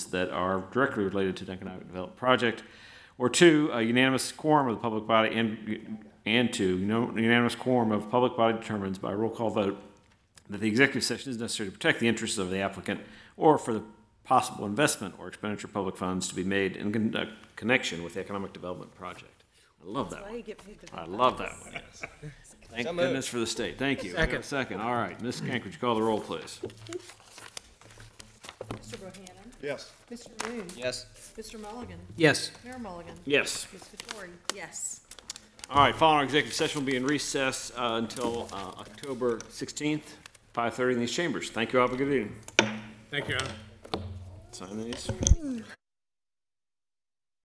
that are directly related to an economic development project, or two, a unanimous quorum of the public body, and, and two, no- unanimous quorum of public body determines by roll call vote that the executive session is necessary to protect the interests of the applicant or for the possible investment or expenditure of public funds to be made in con- uh, connection with the economic development project. I love that one. You get paid to- I love that one, yes. Thank So moved. goodness for the state, thank you. We have a Second. Second, all right, Ms. Kank, would you call the roll, please? Mr. Bohannon? Yes. Mr. Moon? Yes. Mr. Mulligan? Yes. Mayor Mulligan? Yes. Ms. Vettori? Yes. All right, following our executive session will be in recess uh, until uh, October 16th, 5:30 in these chambers. Thank you all, have a good evening. Thank you, Your Honor. Sign these.